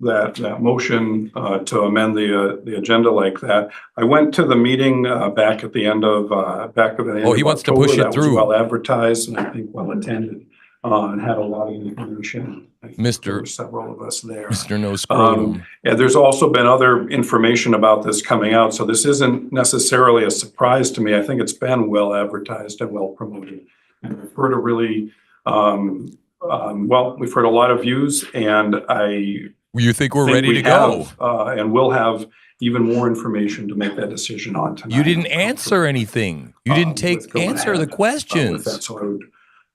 that, that motion, uh, to amend the, uh, the agenda like that. I went to the meeting, uh, back at the end of, uh, back of the. end Oh, he of wants to October. push it That was through. Well advertised and I think well attended, uh, and had a lot of information. I think there Um, Mr. were Several of us there. Mr. No Scrotum. And there's also been other information about this coming out, so this isn't necessarily a surprise to me. I think it's been well advertised and well promoted. And we've heard a really, um, um, well, we've heard a lot of views and I. You think we're think ready we to go? have, Uh, and we'll have even more information to make that decision on tonight. You didn't answer anything. You Um, didn't take, with going answer ahead, the uh, with that, questions. So I would,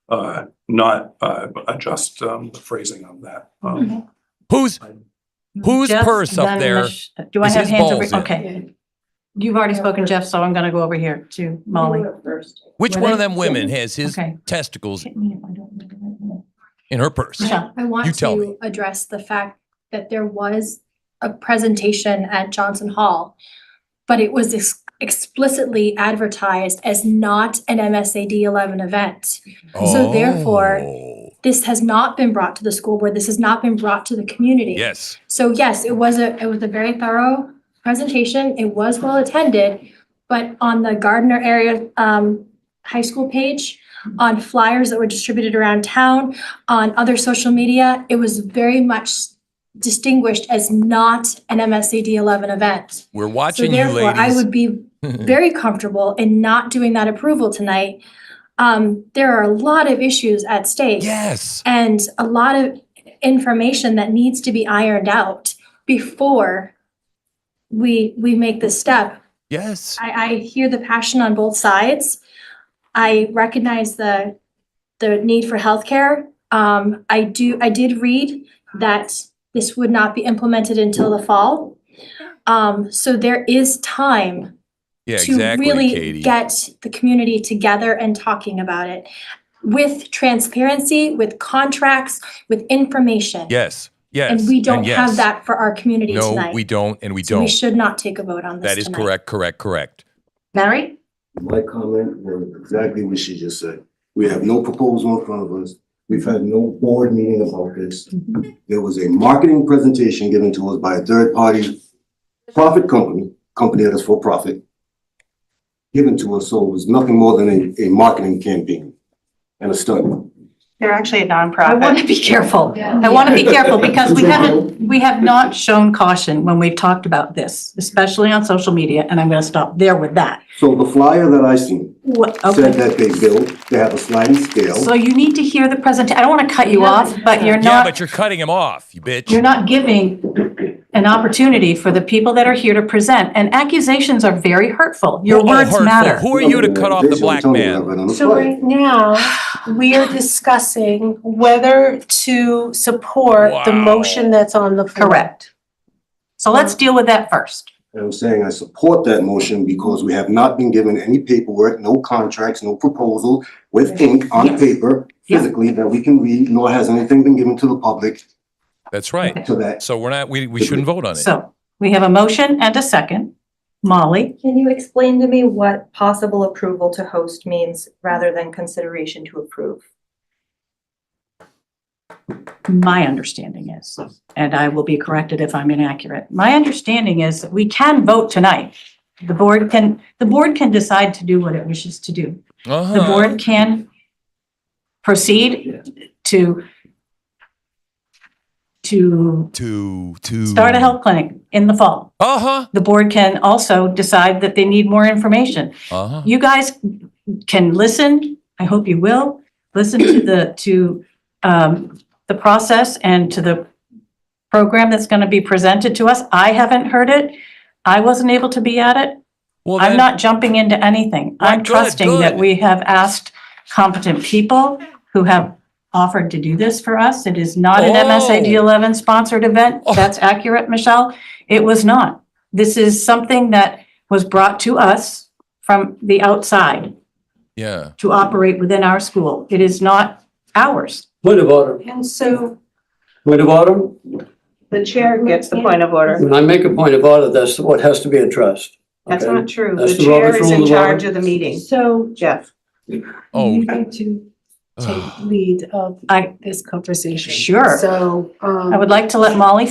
uh, not, uh, adjust, um, the phrasing of that. Um, Who's, Whose Jeff, purse up then there Mich- Do I is have his hands balls over? in? Okay. You've already spoken, Jeff, so I'm gonna go over here to Molly. which Were one of they- them women has his Okay. testicles in her purse? Michelle. I want You tell me. to address the fact that there was a presentation at Johnson Hall, but it was ex- explicitly advertised as not an MSAD eleven event. So therefore- Oh, This has not been brought to the school board. This has not been brought to the community. Yes, So yes, it was a, it was a very thorough presentation. It was well attended. But on the Gardner area, um, high school page, on flyers that were distributed around town, on other social media, it was very much distinguished as not an MSAD eleven event. we're So watching you therefore, I ladies. would be very comfortable in not doing that approval tonight. Um, there are a lot of issues at stake Yes, and a lot of information that needs to be ironed out before we we make this step. yes. I I hear the passion on both sides. I recognize the the need for healthcare. Um, I do, I did read that this would not be implemented until the fall. Um, so there is time Yeah, to exactly, really Katie. get the community together and talking about it with transparency, with contracts, with information. Yes, yes. And we don't yes. have that for our community No, tonight. we don't, and we So we don't. should not take a vote on this That is tonight. correct, correct, correct. Mary? My comment was exactly what she just said. We have no proposal in front of us. We've had no board meeting about this. There was a marketing presentation given to us by a third party profit company, company that is for profit, given to us, so it was nothing more than a, a marketing campaign and a stunt. They're actually a I nonprofit. want to be careful. I want to be careful because we haven't, we have not shown caution when we've talked about this, especially on social media, and I'm gonna stop there with that. So the flyer that I seen What, said okay, that they build, they have a sliding so scale. you need to hear the present, I don't want to cut you off, but you're Yeah, not, but you're cutting him off, you bitch. you're not giving an opportunity for the people that are here to present, and accusations are very hurtful. Your Oh, words hurtful. matter. Who are you to cut off the They should black tell me that man? right on the So flyer. right now, we are discussing whether to support the Wow. motion that's on the floor. Correct. So let's deal with that first. And I'm saying I support that motion because we have not been given any paperwork, no contracts, no proposal with ink on Yes. paper Yeah. physically that we can read, nor has anything been given to the public That's right. to that. So we're not, we, we shouldn't vote on it. So we have a motion and a second. Molly, Can you explain to me what possible approval to host means rather than consideration to approve? my understanding is, and I will be corrected if I'm inaccurate, my understanding is that we can vote tonight. The board can, the board can decide to do what it wishes to do. The Uh-huh. board can proceed to to To, to. start a health clinic in the fall. Uh-huh, The board can also decide that they need more information. uh-huh. you guys can listen, I hope you will, listen to the, to um, the process and to the program that's going to be presented to us. I haven't heard it. I wasn't able to be at it. Well, I'm then- not jumping into anything. Well, I'm good, trusting that good. we have asked competent people who have offered to do this for us. It is not an Oh. MSAD 11 sponsored event. Oh. That's accurate, Michelle. It was not. This is something that was brought to us from the outside Yeah, to operate within our school. It is not ours. Point of order, And so point of order. the chair Gets the point of order. When I make a point of order, that's what has to be addressed. That's okay? not true. That's The the chair Robert's is Rule in of Order. charge of the meeting. So Jeff, oh. you need to take lead of I- this conversation. Sure. So, um. I would like to let Molly